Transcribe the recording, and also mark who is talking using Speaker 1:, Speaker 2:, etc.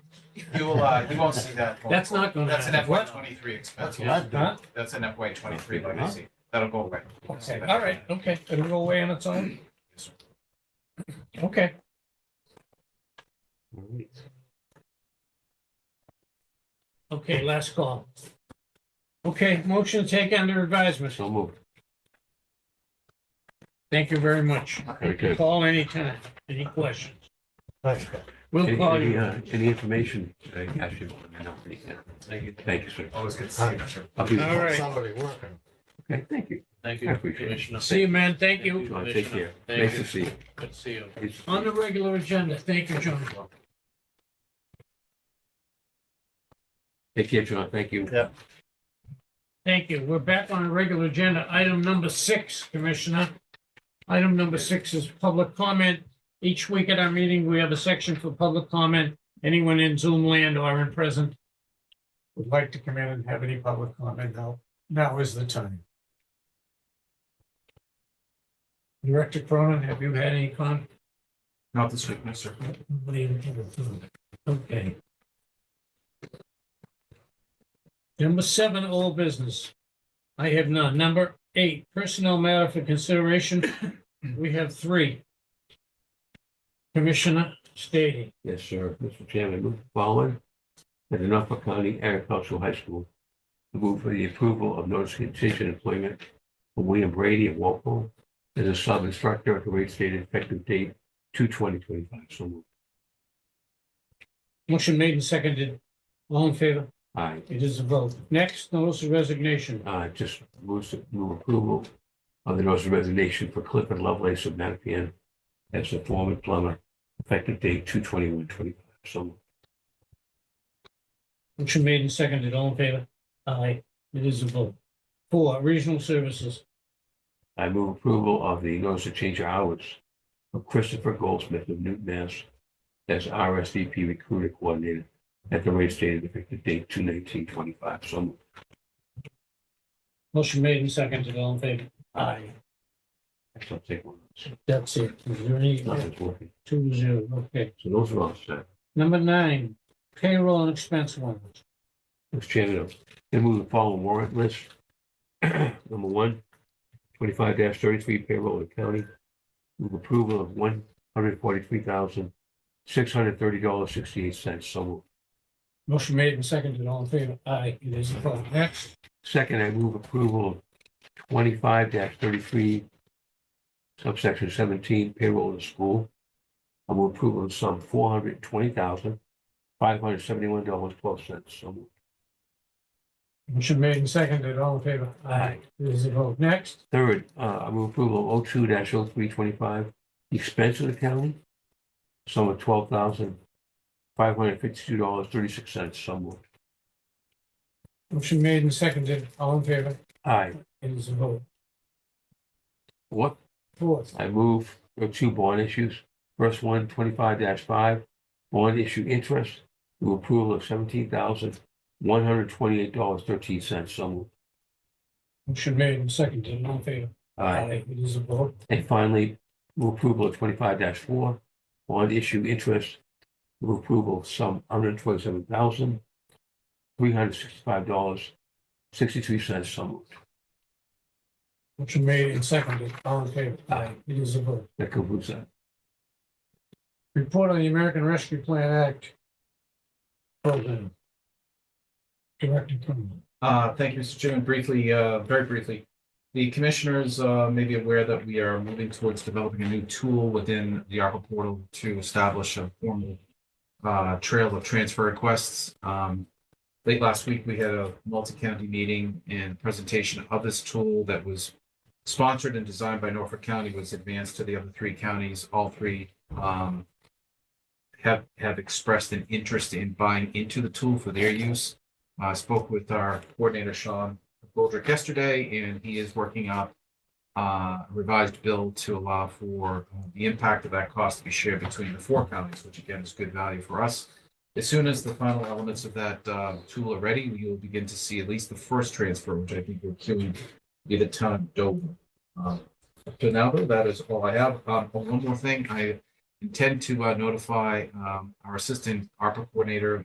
Speaker 1: You will, uh, you won't see that. going
Speaker 2: That's
Speaker 1: forward.
Speaker 2: not gonna
Speaker 1: That's an
Speaker 2: happen.
Speaker 1: FY twenty-three expense.
Speaker 3: That's what I've done.
Speaker 1: That's an FY twenty-three legacy. That'll go away. You'll see
Speaker 2: Okay,
Speaker 1: that.
Speaker 2: all right, okay, it'll go away on its own,
Speaker 1: Yes, sir.
Speaker 2: okay. Okay, last call. Okay, motion to take under advisement.
Speaker 3: So moved.
Speaker 2: Thank you very much.
Speaker 3: Very good.
Speaker 2: Call anytime, any questions.
Speaker 4: Thanks.
Speaker 2: We'll
Speaker 3: Any,
Speaker 2: call
Speaker 3: any,
Speaker 2: you.
Speaker 3: uh, any information? uh, Actually, no, yeah. Thank you, sir.
Speaker 1: Always good to see you, Mr.
Speaker 3: I'll be-
Speaker 2: All right.
Speaker 4: Somebody working.
Speaker 3: Okay, thank you.
Speaker 5: Thank
Speaker 3: I
Speaker 5: you,
Speaker 3: appreciate it.
Speaker 5: Commissioner.
Speaker 2: See you, man, thank you.
Speaker 3: Uh, Take care.
Speaker 5: Thank
Speaker 3: Nice
Speaker 5: you.
Speaker 3: to see you.
Speaker 5: Good to see you.
Speaker 3: Nice to see
Speaker 2: On
Speaker 3: you.
Speaker 2: the regular agenda, thank you, John.
Speaker 3: Take care, John. Thank you.
Speaker 4: Yeah.
Speaker 2: Thank you. We're back on a regular agenda. Item number six, Commissioner. Item number six is public comment. Each week at our meeting, we have a section for public comment. Anyone in Zoom land or in present would like to come in and have any public comment, now, now is the time. Director Cronin, have you had any comment?
Speaker 1: Not this week, no, sir.
Speaker 2: Nobody in here. Okay. Number seven, all business. I have none. Number eight, personnel matter for consideration. We have three. Commissioner Stady.
Speaker 3: Yes, sir. Mr. Chairman, move the following. At the Norfolk County Agricultural High School, to move for the approval of notice of contingent employment for William Brady of Walpole as a sub instructor at the rate stated effective date two twenty twenty five. So moved.
Speaker 2: Motion made and seconded. All in favor?
Speaker 3: Aye.
Speaker 2: It is a vote. Next, notice of resignation.
Speaker 3: Uh, just move, to- move approval of the notice of resignation for Clifford Lovelace of Mattapian as a foreman plumber effective date two twenty one twenty five. So moved.
Speaker 2: Motion made and seconded. All in favor? Aye. It is a vote. Four, regional services.
Speaker 3: I move approval of the notice to change of hours of Christopher Goldsmith of Newton, Mass. as RSVP recruiter coordinator at the rate stated effective date two nineteen twenty-five. So moved.
Speaker 2: Motion made and seconded. All in favor? Aye.
Speaker 3: Actually, I'll take one. of those.
Speaker 2: That's it. Is there any?
Speaker 3: Nothing's working.
Speaker 2: Two zero, okay.
Speaker 3: So those are all set.
Speaker 2: Number nine, payroll and expense warrants.
Speaker 3: Mr. Chairman, I move the following warrant list. Number one, twenty-five thirty-three payroll of the county. Move approval of one hundred forty-three thousand, six hundred thirty dollars, sixty-eight cents. So moved.
Speaker 2: Motion made and seconded, all in favor? Aye, it is approved. Next,
Speaker 3: Second, I move approval of twenty-five thirty-three, subsection seventeen, payroll of the school. I move approval of sum four hundred twenty thousand, five hundred seventy-one dollars, twelve cents. So moved.
Speaker 2: motion made and seconded, all in favor? Aye, it is approved. Next,
Speaker 3: Third, uh, I move approval of 2 dash oh three twenty-five, expense of the county, sum of twelve thousand, five hundred fifty-two dollars, thirty-six cents. So moved.
Speaker 2: motion made and seconded, all in favor?
Speaker 3: Aye.
Speaker 2: It is approved.
Speaker 3: What?
Speaker 2: Fourth,
Speaker 3: I move, there are two bond issues. First one, twenty-five five, bond issue interest to approval of seventeen thousand, one hundred twenty-eight dollars, thirteen cents. So moved.
Speaker 2: motion made and seconded, all in favor? It is approved.
Speaker 3: And finally, move approval of twenty-five four, bond issue interest, move approval of some hundred twenty-seven thousand, three hundred sixty-five dollars, sixty-three cents. So moved.
Speaker 2: Motion made and seconded, all in favor?
Speaker 3: Aye.
Speaker 2: It is approved.
Speaker 3: That concludes that.
Speaker 2: Report on the American Rescue Plan Act program. Director Cronin.
Speaker 1: Uh, Thank you, Mr. Chairman. Briefly, uh, very briefly, the commissioners uh, may be aware that we are moving towards developing a new tool within the ARPA portal to establish a formal uh, trail of transfer requests. Um, Late last week, we had a multi-county meeting and presentation of this tool that was sponsored and designed by Norfolk County, was advanced to the other three counties. All three um, have, have expressed an interest in buying into the tool for their use. I spoke with our coordinator, Sean Goldrick, yesterday, and he is working up uh, a revised bill to allow for uh, the impact of that cost to be shared between the four counties, which again is good value for us. As soon as the final elements of that uh, tool are ready, we will begin to see at least the first transfer, which I think we're queuing be the town of Dover. Um, up to now, though, that is all I have. Um, oh, One more thing, I intend to uh, notify um, our assistant ARPA coordinator,